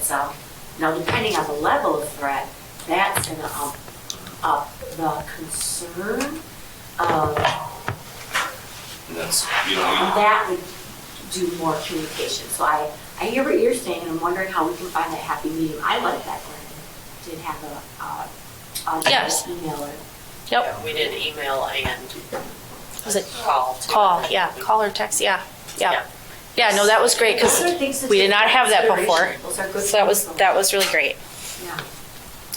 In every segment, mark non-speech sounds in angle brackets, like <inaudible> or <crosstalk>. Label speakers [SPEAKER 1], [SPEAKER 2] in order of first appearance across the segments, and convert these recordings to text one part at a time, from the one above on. [SPEAKER 1] itself. Now, depending on the level of threat, that's gonna up, up the concern of,
[SPEAKER 2] And that's, you know,
[SPEAKER 1] and that would do more communication. So I, I hear what you're saying, and I'm wondering how we can find that happy medium. I like that Glenn did have a, uh,
[SPEAKER 3] Yes.
[SPEAKER 1] a email or
[SPEAKER 3] Yep,
[SPEAKER 4] We did email and
[SPEAKER 3] was it
[SPEAKER 4] call. too.
[SPEAKER 3] call? Yeah, call or text, yeah, yeah. Yeah, no, that was great because
[SPEAKER 1] Those are things to
[SPEAKER 3] we did
[SPEAKER 1] take
[SPEAKER 3] not
[SPEAKER 1] into
[SPEAKER 3] have that before.
[SPEAKER 1] consideration. Those are good
[SPEAKER 3] So that was,
[SPEAKER 1] points,
[SPEAKER 3] that was really great,
[SPEAKER 1] though. Yeah.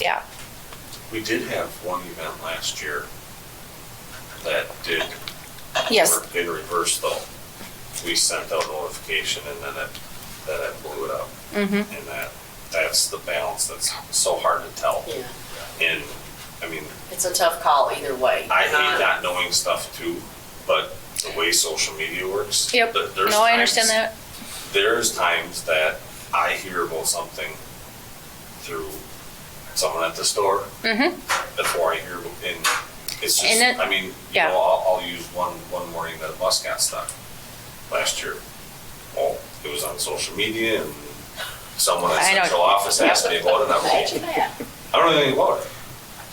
[SPEAKER 3] yeah.
[SPEAKER 2] we, we did have one event last year that did.
[SPEAKER 3] Yes,
[SPEAKER 2] work In reverse though. We sent out notification and then it, then it blew it up.
[SPEAKER 3] mm-hmm,
[SPEAKER 2] And that, that's the balance that's so hard to tell.
[SPEAKER 4] Yeah,
[SPEAKER 2] And, I mean,
[SPEAKER 4] it's a tough call either way.
[SPEAKER 2] I hate not knowing stuff too, but the way social media works.
[SPEAKER 3] yep.
[SPEAKER 2] there- there's
[SPEAKER 3] No, I
[SPEAKER 2] times-
[SPEAKER 3] understand that.
[SPEAKER 2] There's times that I hear about something through someone at the store
[SPEAKER 3] Mm-hmm,
[SPEAKER 2] before I hear, and it's just,
[SPEAKER 3] And it-
[SPEAKER 2] I mean, you
[SPEAKER 3] yeah.
[SPEAKER 2] know, I'll, I'll use one, one morning that a bus got stuck last year. Well, it was on social media and someone at
[SPEAKER 3] I know.
[SPEAKER 2] central office asked me about it, and I'm like,
[SPEAKER 3] <laughs>
[SPEAKER 4] Imagine that.
[SPEAKER 2] I don't know anything about it.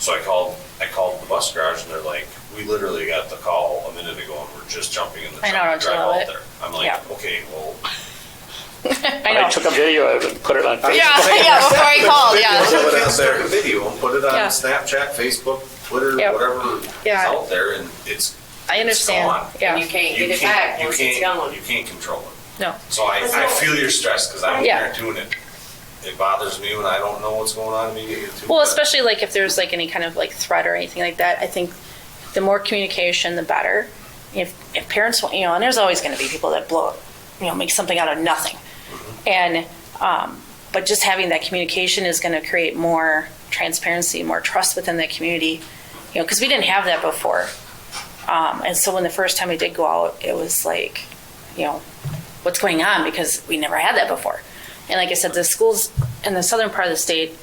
[SPEAKER 2] So I called, I called the bus garage and they're like, we literally got the call a minute ago and we're just jumping in the
[SPEAKER 3] I
[SPEAKER 2] truck
[SPEAKER 3] know,
[SPEAKER 2] and
[SPEAKER 3] don't you
[SPEAKER 2] drive
[SPEAKER 3] love
[SPEAKER 2] out
[SPEAKER 3] it?
[SPEAKER 2] there. I'm like,
[SPEAKER 3] Yeah.
[SPEAKER 2] okay, well,
[SPEAKER 3] I know.
[SPEAKER 5] took a video of it and put it on Facebook.
[SPEAKER 3] Yeah, yeah, before I
[SPEAKER 2] <laughs>
[SPEAKER 3] called, yeah.
[SPEAKER 2] put it out there, video, and put it on
[SPEAKER 3] Yeah.
[SPEAKER 2] Snapchat, Facebook, Twitter,
[SPEAKER 3] Yep.
[SPEAKER 2] whatever is
[SPEAKER 3] Yeah.
[SPEAKER 2] out there and it's.
[SPEAKER 3] I understand,
[SPEAKER 4] And
[SPEAKER 3] yeah.
[SPEAKER 4] you can't
[SPEAKER 2] You
[SPEAKER 4] get it
[SPEAKER 2] can't,
[SPEAKER 4] back
[SPEAKER 2] you
[SPEAKER 4] once it's
[SPEAKER 2] can't,
[SPEAKER 4] gone.
[SPEAKER 2] you can't control it.
[SPEAKER 3] No.
[SPEAKER 2] So I, I feel your stress because I'm
[SPEAKER 3] Yeah.
[SPEAKER 2] there doing it. It bothers me when I don't know what's going on immediately too.
[SPEAKER 3] Well,
[SPEAKER 2] but-
[SPEAKER 3] especially like if there's like any kind of like threat or anything like that, I think the more communication, the better. If, if parents, want- you know, and there's always going to be people that blow, you know, make something out of nothing. And, um, but just having that communication is going to create more transparency, more trust within the community, you know, because we didn't have that before. Um, and so when the first time we did go out, it was like, you know, what's going on because we never had that before. And like I said, the schools in the southern part of the state,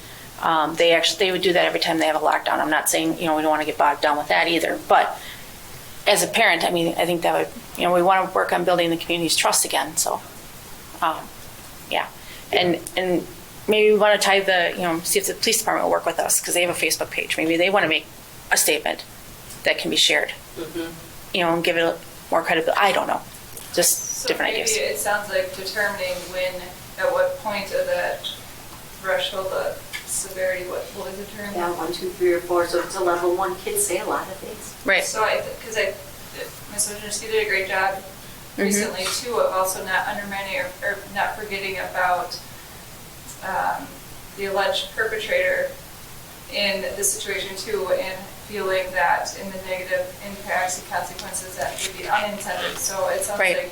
[SPEAKER 3] um, they actually they would do that every time they have a lockdown. I'm not saying you know we don't want to get bogged down with that either, but as a parent, I mean I think that would you know we want to work on building the community's trust again. So, um, yeah, and and maybe we want to tie the you know see if the police department will work with us because they have a Facebook page. Maybe they want to make a statement that can be shared. You know, and give it a- more credibility. I don't know, just
[SPEAKER 6] Mm-hmm. So
[SPEAKER 3] different
[SPEAKER 6] maybe
[SPEAKER 3] ideas.
[SPEAKER 6] It sounds like determining when, at what point of that threshold of severity, what what is the term?
[SPEAKER 1] Yeah, one, two, three, or four, so it's a level one, kids say a lot of things.
[SPEAKER 3] Right.
[SPEAKER 6] So I, because I, Ms. Wojcicki did a great job
[SPEAKER 3] Mhm.
[SPEAKER 6] recently too of also not undermining or, or not forgetting about um, the alleged perpetrator in this situation too and feeling that in the negative impacts and consequences that could be unintended. So it sounds
[SPEAKER 3] Right.
[SPEAKER 6] like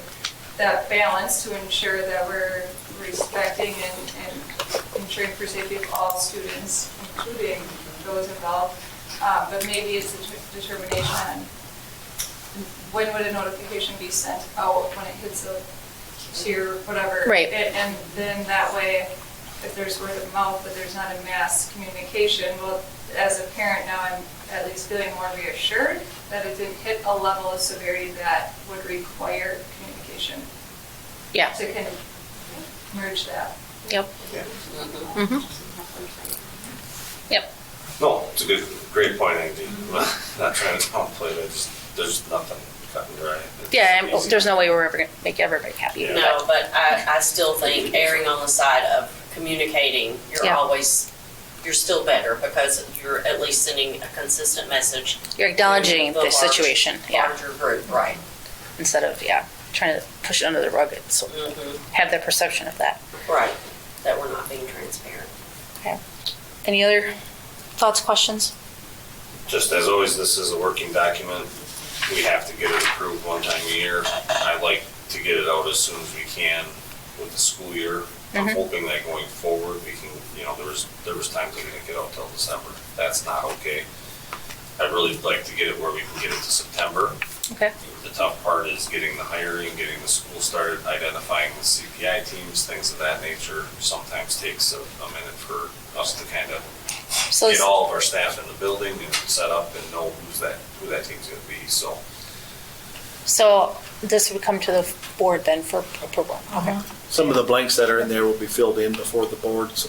[SPEAKER 6] that balance to ensure that we're respecting and, and ensuring for safety of all students, including those involved. Uh, but maybe it's a de- determination on when would a notification be sent out when it hits the tier, whatever.
[SPEAKER 3] Right.
[SPEAKER 6] A- And then that way, if there's word of mouth, but there's not a mass communication, well, as a parent now, I'm at least feeling more reassured that it didn't hit a level of severity that would require communication
[SPEAKER 3] Yeah.
[SPEAKER 6] to kind of merge that.
[SPEAKER 3] Yep. Mm-hmm. Yep.
[SPEAKER 2] No, it's a good, great point, Andy. Not trying to downplay it, I just, there's nothing cut and dry. It's
[SPEAKER 3] Yeah. And
[SPEAKER 2] easy.
[SPEAKER 3] there's no way we're ever gonna make everybody happy.
[SPEAKER 2] Yeah.
[SPEAKER 3] but-
[SPEAKER 4] No, but I, I still think erring on the side of communicating, you're
[SPEAKER 3] Yeah.
[SPEAKER 4] always, you're still better because you're at least sending a consistent message.
[SPEAKER 3] You're acknowledging
[SPEAKER 4] to
[SPEAKER 3] the
[SPEAKER 4] large-
[SPEAKER 3] situation, yeah,
[SPEAKER 4] Larger group, right.
[SPEAKER 3] instead of, yeah, trying to push it under the rug, it's,
[SPEAKER 4] Mhm.
[SPEAKER 3] have the perception of that.
[SPEAKER 4] Right, that we're not being transparent.
[SPEAKER 3] Any other thoughts, questions?
[SPEAKER 2] Just as always, this is a working document. We have to get it approved one time a year. I like to get it out as soon as we can with the school year. I'm
[SPEAKER 3] Mhm.
[SPEAKER 2] hoping that going forward, we can, you know, there was, there was times we didn't get out till December. That's not okay. I'd really like to get it where we can get it to September.
[SPEAKER 3] Okay.
[SPEAKER 2] The tough part is getting the hiring, getting the school started, identifying the CPI teams, things of that nature. Sometimes takes a, a minute for us to kind of
[SPEAKER 3] So,
[SPEAKER 2] get all of our staff in the building and set up and know who's that, who that team's gonna be, so.
[SPEAKER 3] so this would come to the board then for approval, okay?
[SPEAKER 7] Some of the blanks that are in there will be filled in before the board, so